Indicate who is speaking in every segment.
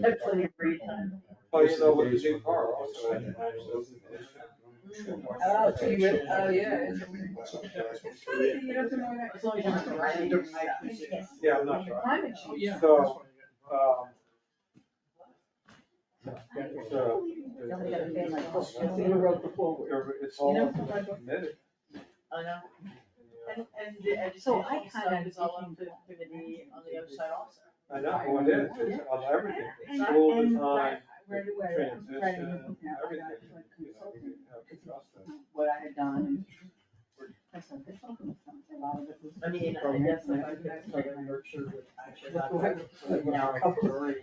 Speaker 1: They're plenty of free time.
Speaker 2: Oh, you know, with the new car also. I-
Speaker 1: Oh, so you would- oh, yeah. As long as you don't have to write any stuff.
Speaker 2: Yeah, I'm not sure.
Speaker 1: Climate change.
Speaker 2: So, um. So,
Speaker 1: Somebody got a thing like, oh, so you wrote the forward.
Speaker 2: it's all committed.
Speaker 3: I know, and, and the
Speaker 1: So
Speaker 3: educational
Speaker 1: I
Speaker 3: stuff
Speaker 1: kinda
Speaker 3: is all up
Speaker 1: think-
Speaker 3: to, to be on the other side also.
Speaker 2: I know, it is, it's on everything,
Speaker 3: And-
Speaker 2: school
Speaker 1: and
Speaker 2: design,
Speaker 1: Right away, I'm writing a
Speaker 2: transition,
Speaker 1: book now. I got it
Speaker 2: everything.
Speaker 1: to a
Speaker 2: You know, we have
Speaker 1: consultant,
Speaker 2: to trust them.
Speaker 1: What I had done. I said, this all makes sense. A lot of it was-
Speaker 3: I mean, I guess if I could start a nurture with, I should not have now a couple of worries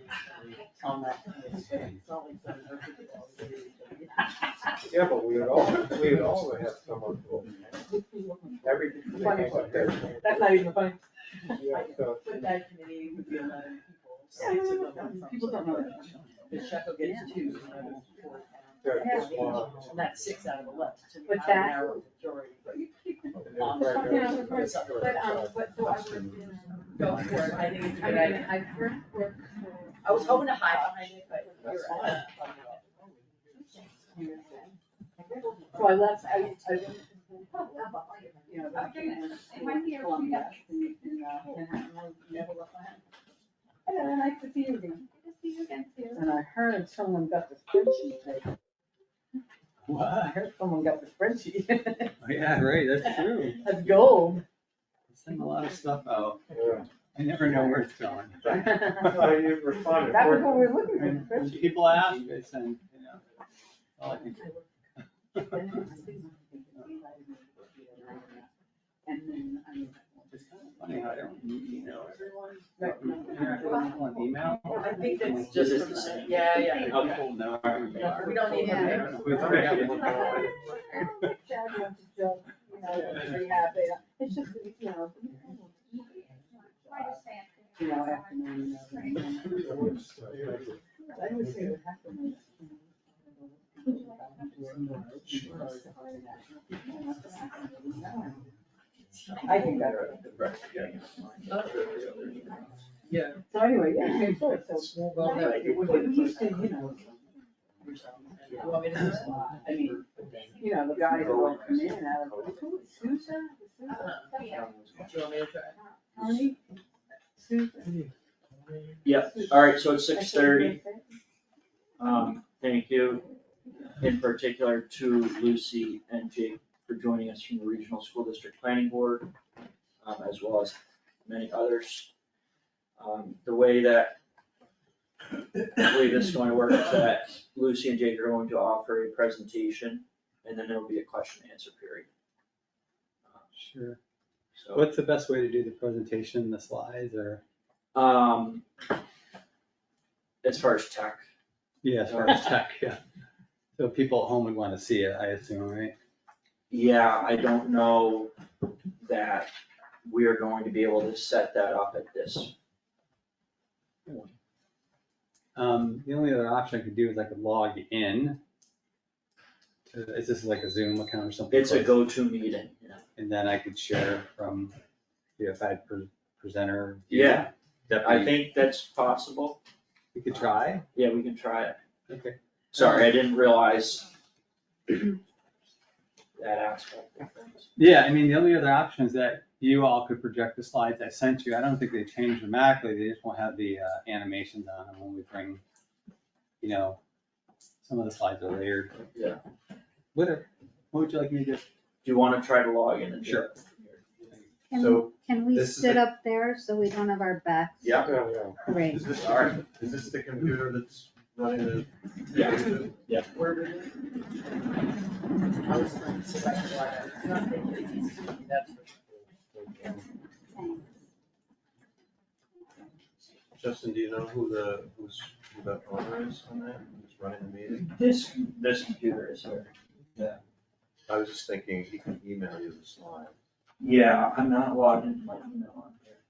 Speaker 3: on that. It's not like some nurture could always do it.
Speaker 2: Yeah, but we would also, we would also have someone who, everything.
Speaker 1: Funny. That's not even funny.
Speaker 2: Yeah, so,
Speaker 3: But that committee would be eleven people. so it's a government from-
Speaker 1: People don't know that.
Speaker 3: The Sheco gets two, and I was four.
Speaker 2: there's just one.
Speaker 3: And that's six out of eleven, to me,
Speaker 1: But
Speaker 3: I'm
Speaker 1: that-
Speaker 3: narrow majority.
Speaker 1: But, um, but, so I would,
Speaker 3: Go for it, I think it's a
Speaker 1: I
Speaker 3: good
Speaker 1: mean,
Speaker 3: idea.
Speaker 1: I worked, worked for.
Speaker 3: I was hoping to hide behind it, but you're.
Speaker 2: That's
Speaker 3: right.
Speaker 1: So I left, I, I went, you know, back in.
Speaker 4: It might be a-
Speaker 1: Columbia, in, uh, Manhattan, I never left my house. And then I could see you again, and I heard someone got the spreadsheet taken. I
Speaker 5: Wow,
Speaker 1: heard someone got the spreadsheet,
Speaker 5: Oh, yeah, right, that's true.
Speaker 1: that's gold.
Speaker 5: Send a lot of stuff out.
Speaker 2: Yeah.
Speaker 5: I never know where it's going.
Speaker 1: That
Speaker 2: So you responded.
Speaker 1: was what we were looking for,
Speaker 5: And
Speaker 1: the
Speaker 5: when
Speaker 1: spreadsheet.
Speaker 5: People ask, I send, you know. all I can do.
Speaker 1: And then um, I.
Speaker 5: It's kind of funny how I don't email everyone.
Speaker 1: Right.
Speaker 5: You're not on email?
Speaker 3: I think that's
Speaker 5: Like,
Speaker 3: just
Speaker 5: this
Speaker 3: for
Speaker 5: is-
Speaker 3: the- yeah, yeah.
Speaker 5: Like, How people know where we
Speaker 3: Yeah,
Speaker 5: are.
Speaker 3: We don't need
Speaker 1: Yeah.
Speaker 3: that.
Speaker 5: We don't have it.
Speaker 1: Chad wants to jump, you know, they're pretty happy. It's just, you know. You know, afternoon. you know, I would say what happened is. I think better.
Speaker 3: Yeah.
Speaker 1: So anyway, yeah, same story, so.
Speaker 3: Well, no,
Speaker 1: We used to, you know,
Speaker 3: You want me to do it?
Speaker 1: I mean, you know, the guys that will come in and out of, who, Sousa?
Speaker 3: Uh-huh. Do you want me to try?
Speaker 1: Tony? Sousa?
Speaker 6: Yep, all right, so it's six thirty. Um, thank you in particular to Lucy and Jake for joining us from the Regional School District Planning Board, um, as well as many others. Um, the way that I believe this is going to work is that Lucy and Jake are going to offer a presentation, and then there will be a question and answer period.
Speaker 5: Sure.
Speaker 6: So,
Speaker 5: What's the best way to do the presentation, the slides or?
Speaker 6: um, as far as tech,
Speaker 5: Yeah, as far as tech, yeah. So people at home would want to see it, I assume, right?
Speaker 6: Yeah, I don't know that we are going to be able to set that up at this.
Speaker 5: Um, the only other option I could do is I could log in. to- Is this like a Zoom account or something?
Speaker 6: It's a go-to meeting, you know.
Speaker 5: And then I could share from the outside pre- presenter. view.
Speaker 6: Yeah,
Speaker 5: That'd
Speaker 6: I
Speaker 5: be-
Speaker 6: think that's possible.
Speaker 5: We could try.
Speaker 6: Yeah, we can try it.
Speaker 5: Okay.
Speaker 6: Sorry, I didn't realize that aspect of things.
Speaker 5: Yeah, I mean, the only other option is that you all could project the slides I sent you. I don't think they change dramatically. They just won't have the uh, animations on them when we bring, you know, some of the slides are layered.
Speaker 6: Yeah.
Speaker 5: Whatever. What would you like me to do?
Speaker 6: Do you wanna try to log in and do
Speaker 5: Sure.
Speaker 6: it?
Speaker 4: Can,
Speaker 2: So,
Speaker 4: can we
Speaker 2: this is
Speaker 4: sit
Speaker 2: the-
Speaker 4: up there so we don't have our backs?
Speaker 6: Yeah.
Speaker 2: Yeah, yeah.
Speaker 4: Great.
Speaker 7: Is this,
Speaker 6: All right.
Speaker 7: is this the computer that's running the?
Speaker 6: Yeah.
Speaker 3: Where we live. I was like, so like, why, it's not big, it's easy, that's for sure.
Speaker 7: Justin, do you know who the, who's, who the owner is on that, who's running the meeting?
Speaker 6: This, this computer is here.
Speaker 7: I was just thinking he can email you the slide.
Speaker 6: Yeah, I'm not logged into my email on here.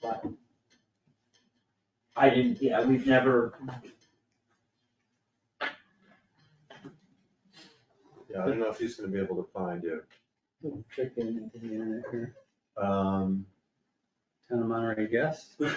Speaker 6: But I didn't, yeah, we've never
Speaker 7: Yeah, I don't know if he's gonna be able to find you.
Speaker 5: Check in into the internet here.
Speaker 7: Um,
Speaker 5: Town of Monterey guest.